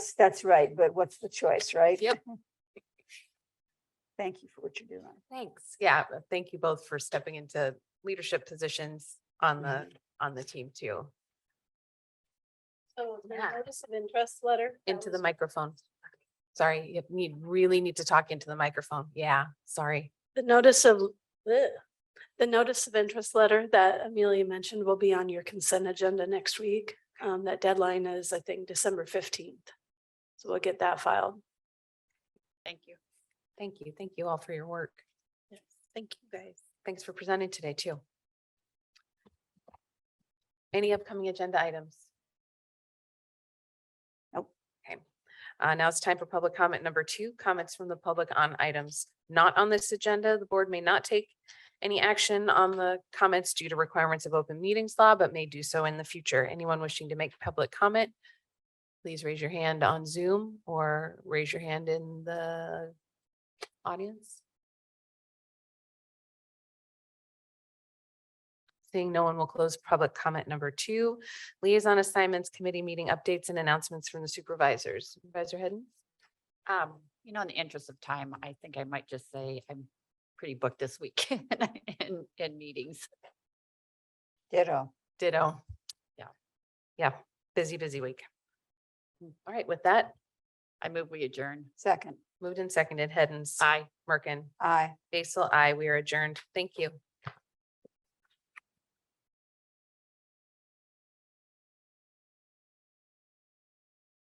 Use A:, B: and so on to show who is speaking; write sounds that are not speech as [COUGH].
A: that's, that's right, but what's the choice, right?
B: Yep.
A: [LAUGHS] Thank you for what you're doing.
B: Thanks. Yeah, but thank you both for stepping into leadership positions on the, on the team too,
C: So Oh, the
B: Yeah.
C: notice of interest letter. that
B: into the
C: was-
B: microphone. Sorry, you need, really need to talk into the microphone. Yeah, sorry.
C: The notice of, bleh. the notice of interest letter that Amelia mentioned will be on your consent agenda next week. Um, that deadline is, I think, December fifteenth. So we'll get that filed.
B: Thank you. Thank you. Thank you all for your work.
C: Thank you, guys.
B: Thanks for presenting today too. Any upcoming agenda items?
A: Nope.
B: Okay, uh, now it's time for public comment number two, comments from the public on items not on this agenda. The board may not take any action on the comments due to requirements of open meetings law, but may do so in the future. Anyone wishing to make public comment? Please raise your hand on Zoom or raise your hand in the audience. Seeing no one will close public comment number two. Liaison assignments, committee meeting updates and announcements from the supervisors. Supervisor Hidden?
D: Um, you know, in the interest of time, I think I might just say I'm pretty booked this week [LAUGHS] in, in meetings.
A: Ditto.
B: Ditto.
D: Yeah.
B: Yeah, busy, busy week. Mm, All right, with that,
D: I move we adjourn.
A: Second,
B: moved and seconded, Hidden,
D: Aye.
B: Merkin,
A: aye.
B: Basil, I, we are adjourned. Thank you.